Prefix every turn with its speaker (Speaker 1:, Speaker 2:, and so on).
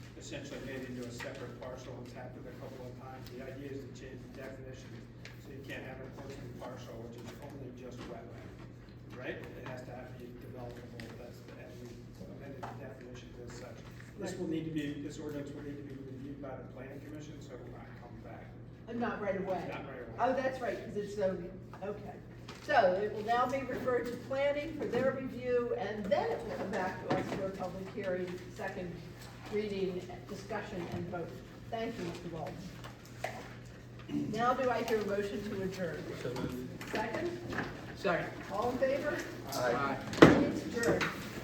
Speaker 1: essentially made into a separate parcel, it's happened a couple of times. The idea is to change the definition, so you can't have an open parcel, which is only just wetland, right? It has to have, be developable, that's, the- and we amended the definitions as such. This will need to be, this ordinance will need to be reviewed by the planning commission, so it will not come back.
Speaker 2: Uh, Not right away?
Speaker 1: Not right away.
Speaker 2: Oh, that's right, because it's zoning, okay. So it will now be referred to planning for their review, and then it will come back to us for a public hearing, second reading, discussion, and vote. Thank you, Mr. Walsh. Now do I hear a motion to adjourn? Second?
Speaker 3: Second.
Speaker 2: All in favor?
Speaker 4: Aye.
Speaker 2: It's adjourned.